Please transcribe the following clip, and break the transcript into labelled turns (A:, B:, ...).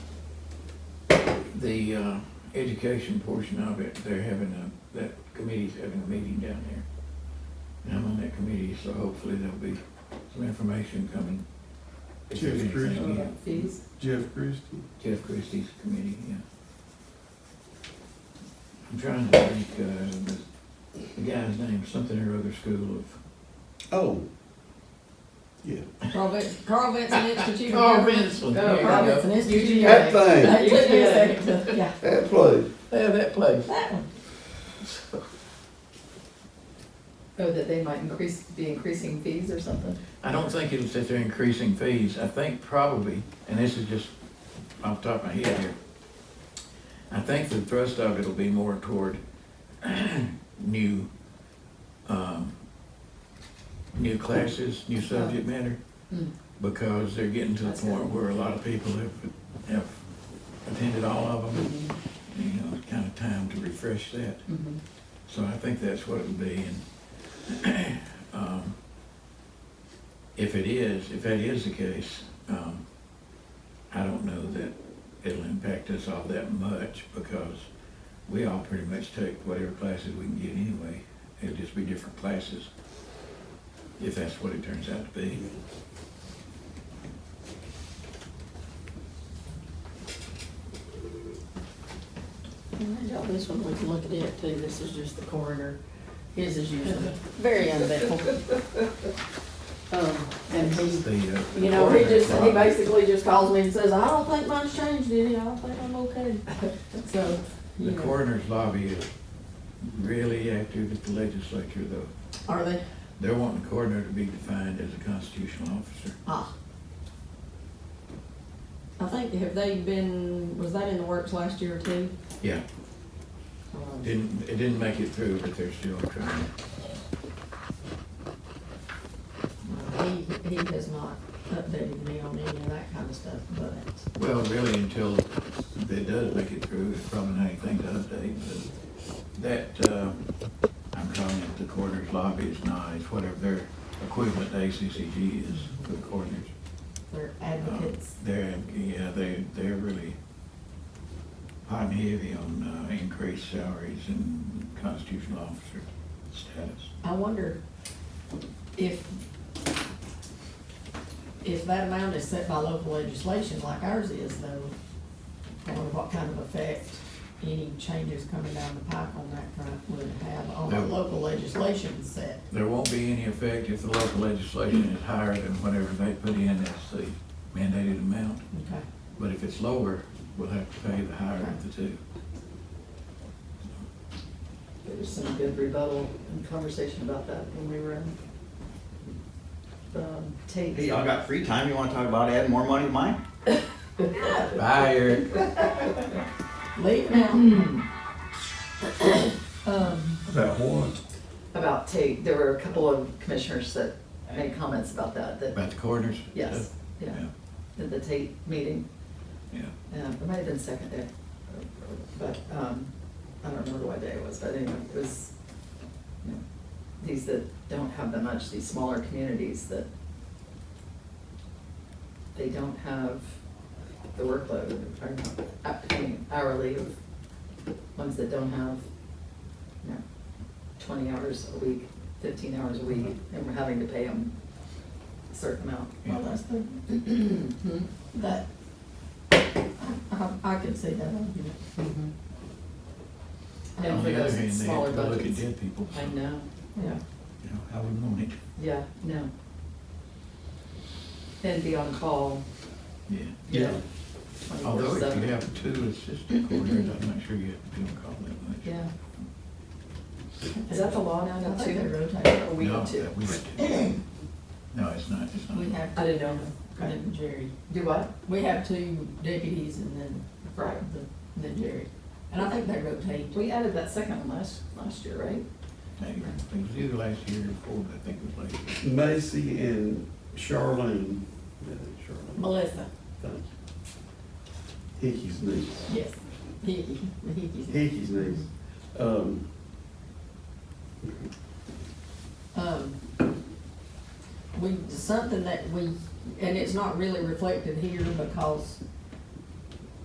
A: the, uh, education portion of it, they're having a, that committee's having a meeting down there. And I'm on that committee, so hopefully there'll be some information coming. If there's
B: Jeff
A: anything,
B: Christie.
A: yeah.
C: Fees?
B: Jeff Christie.
A: Jeff Christie's committee, yeah. I'm trying to think, uh, the- the guy's name, something or other school of.
B: Oh. Yeah.
C: Carl Vin- Carl Vincent Institute.
A: Carl Vinson,
C: Oh,
A: there
C: Carl
A: you go.
C: Vincent Institute.
A: UGA.
B: That thing,
C: It took me a second to- yeah,
B: that place.
A: Yeah, that place.
C: that one. Oh, that they might increase, be increasing fees or something?
A: I don't think it's that they're increasing fees. I think probably, and this is just off the top of my head here. I think the thrust of it'll be more toward new, um, new classes, new subject matter.
C: Oh. Hmm.
A: Because they're getting to the
C: That's
A: point
C: good.
A: where a lot of people have, have attended all of them.
C: Mm-hmm.
A: You know, it's kind of time to refresh that.
D: Mm-hmm.
C: Mhm.
A: So I think that's what it'll be, and, um, if it is, if that is the case, um, I don't know that it'll impact us all that much, because we all pretty much take whatever classes we can get anyway. It'll just be different classes, if that's what it turns out to be.
D: Alright, Y'all, this one, we can look at it too, this is just the coroner, his is usually very uneventful. Um, and he,
A: The, uh,
D: you know, he just, he basically just calls me and says, I don't think mine's changed any, I don't think I'm okay.
C: So,
A: The
C: you know,
A: coroner's lobby is really active at the legislature, though.
C: are they,
A: They're wanting the coroner to be defined as a constitutional officer.
C: ah. I think, have they been, was that in the works last year too?
A: Yeah,
C: Um,
A: didn't, it didn't make it through, but they're still trying.
C: Well, Uh, He, he has not updated me on any of that kind of stuff, but
A: Well, really, until it does make it through, it's probably not anything to update, but that, uh, I'm calling it the coroner's lobby is nice, whatever their equivalent to ACCG is for the coroners.
C: they're
A: Uh,
C: advocates.
A: They're, yeah, they, they're really hot and heavy on uh, increased salaries and constitutional officer status.
C: I wonder if, if that amount is set by local legislation like ours is though, I wonder what kind of effect any changes coming down the pipe on that front would have on our
A: Yeah.
C: local legislation set.
A: There won't be any effect if the local legislation is higher than whatever they put in as the mandated amount.
C: Okay,
A: But if it's lower, we'll have to pay the higher of the two.
E: There was some good rebuttal and conversation about that when we were in, um, Tate.
F: Hey, y'all got free time, you wanna talk about adding more money to mine?
A: Bye, Eric.
C: leave now. Um,
B: About what?
E: About Tate, there were a couple of commissioners that made comments about that, that,
A: About the coroners?
E: yes, yeah,
A: Yeah,
E: at the Tate meeting.
A: yeah.
E: Yeah, Um, it might have been second day, but, um, I don't remember what day it was, but anyway, it was, you know, these that don't have that much, these smaller communities that they don't have the workload, or not, I mean, hourly of ones that don't have, you know, twenty hours a week, fifteen hours a week,
A: Mm-hmm.
E: and we're having to pay them a certain amount.
C: well, that's the, that, I, I I could see that argument.
E: And
A: On
E: for
A: the other hand,
E: those
A: they
E: smaller
A: have to look at
E: budgets.
A: dead people, so,
E: I
A: you
E: know, yeah.
A: know, I wouldn't want it.
E: Yeah, no. And be on call
A: Yeah. Oh,
E: Yeah.
A: Although
E: twenty-four
A: if you
E: seven.
A: have two assistant coroners, I'm not sure you have to call that much.
E: Yeah. Is that the law now,
C: I
E: not
C: think they
E: two?
C: rotate.
E: Or we
A: No,
E: have two?
A: that we have to. No, it's not, it's not.
C: We have
E: I
C: to,
E: didn't know.
C: then Jerry.
E: Do what?
C: We have two deputies and then,
E: Right.
C: the- then Jerry. And I think they rotate.
E: We added that second one last, last year, right?
A: Maybe. It was either last year or before, but I think it was last year.
B: Macy and Charlene. Yeah, Charlene.
C: Melissa,
B: Thank you. Hickey's niece.
C: yes. Hickey, Hickey's.
B: Hickey's niece. Um,
C: Um, we, something that we, and it's not really reflected here because